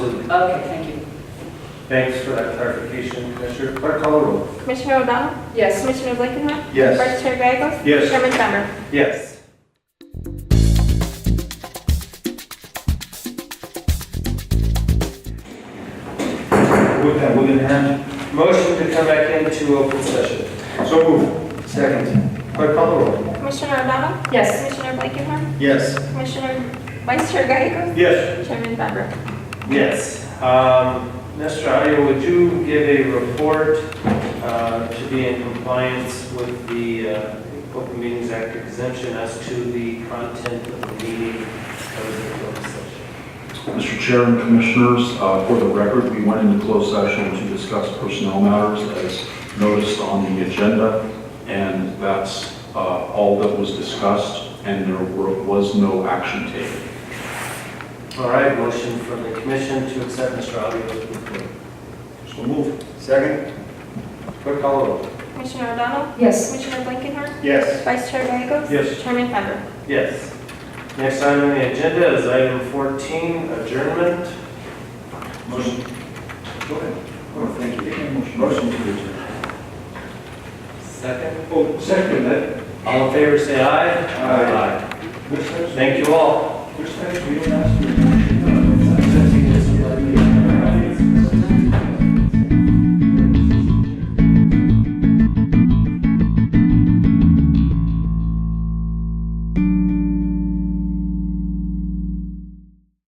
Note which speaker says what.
Speaker 1: Okay, thank you.
Speaker 2: Thanks for that clarification, Commissioner. Clerk, call the roll.
Speaker 3: Commissioner O'Donnell?
Speaker 1: Yes.
Speaker 3: Commissioner Blakenhart?
Speaker 2: Yes.
Speaker 3: Vice Chair Gagos?
Speaker 2: Yes.
Speaker 3: Chairman Bender?
Speaker 2: Yes.
Speaker 4: With that, we're gonna have
Speaker 2: Motion to come back into open session.
Speaker 4: so move. Second.
Speaker 2: Clerk, call the roll.
Speaker 3: Commissioner O'Donnell?
Speaker 1: Yes.
Speaker 3: Commissioner Blakenhart?
Speaker 4: Yes.
Speaker 3: Commissioner Vice Chair Gagos?
Speaker 2: Yes.
Speaker 3: Chairman Bender?
Speaker 2: Yes. Um, Mr. Audio, would you give a report uh, to be in compliance with the uh, Open Meetings Act exemption as to the content of the meeting that was in closed session?
Speaker 5: Mr. Chair and Commissioners, uh, for the record, we went into closed session to discuss personnel matters as noticed on the agenda, and that's uh, all that was discussed, and there were- was no action taken.
Speaker 2: All right, motion from the commission to accept Mr. Audio's report.
Speaker 4: So move. Second.
Speaker 2: Clerk, call the roll.
Speaker 3: Commissioner O'Donnell?
Speaker 1: Yes.
Speaker 3: Commissioner Blakenhart?
Speaker 4: Yes.
Speaker 3: Vice Chair Gagos?
Speaker 2: Yes.
Speaker 3: Chairman Bender?
Speaker 2: Yes. Next item on the agenda is item 14, adjournment.
Speaker 4: Motion. Go ahead. Oh, thank you. Motion to adjourn.
Speaker 2: Second.
Speaker 4: Oh, second, that.
Speaker 2: All in favor, say aye.
Speaker 4: Aye.
Speaker 2: Aye.
Speaker 4: Commissioners,
Speaker 2: Thank you all.
Speaker 4: Commissioners, we don't ask you.